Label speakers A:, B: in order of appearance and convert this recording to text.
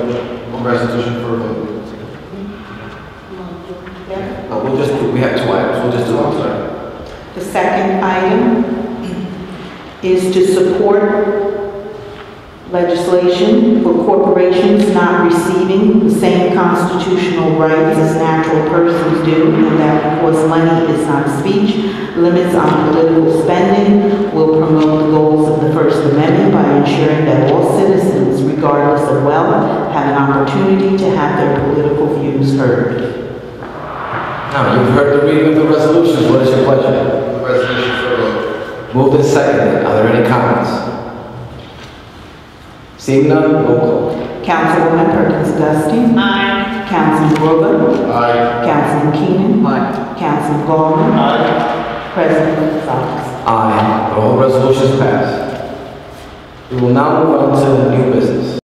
A: resolution for a vote.
B: Yeah.
A: No, we'll just, do- we have two items, we'll just do one tonight.
B: The second item is to support legislation for corporations not receiving the same constitutional rights as natural persons do, and that because money is not speech, limits on political spending will promote the goals of the First Amendment by ensuring that all citizens, regardless of wealth, have an opportunity to have their political views heard.
A: Now, you've heard the reading of the resolution, what is your pleasure?
C: The resolution for a vote.
A: Moved and seconded, are there any comments? Seeing none, roll call.
B: Councilwoman Perkins Dusting. Aye. Councilman Rowland.
C: Aye.
B: Councilman Keenan. Aye. Councilman Gollman. Aye. President Gonzalez.
A: Aye, the whole resolution is passed. We will now move on to new business.